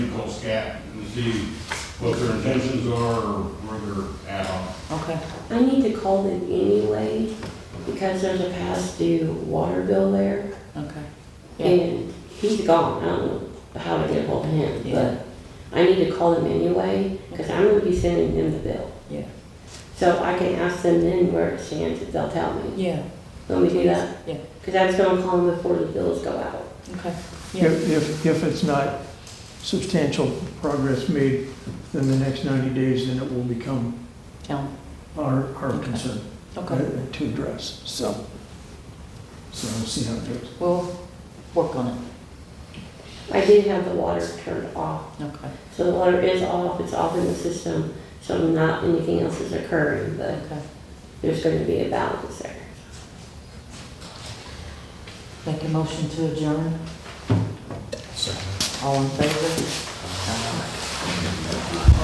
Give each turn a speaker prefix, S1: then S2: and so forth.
S1: tell SCAT and see what their intentions are or where they're at on. it.
S2: Okay.
S3: I need to call them anyway, because there's a past due water bill there,
S2: Okay. Yeah.
S3: and he's gone, I don't know how to get ahold of him,
S2: Yeah.
S3: but I need to call them anyway, because I'm gonna be sending them the bill.
S2: Yeah.
S3: So I can ask them then where it stands, if they'll tell me,
S2: Yeah.
S3: let me do that,
S2: Yeah.
S3: because I was gonna call them before the bills go out.
S2: Okay. Yeah.
S4: If, if, if it's not substantial progress made within the next 90 days, then it will become
S2: Town.
S4: our, our
S2: Okay.
S4: concern uh,
S2: Okay.
S4: to address, so. So we'll see how it goes.
S2: We'll work on it.
S3: I did have the water turned off,
S2: Okay.
S3: so the water is off, it's off in the system, so not anything else is occurring, but
S2: Okay.
S3: there's gonna be a balance there.
S2: Make a motion to adjourn. All in favor?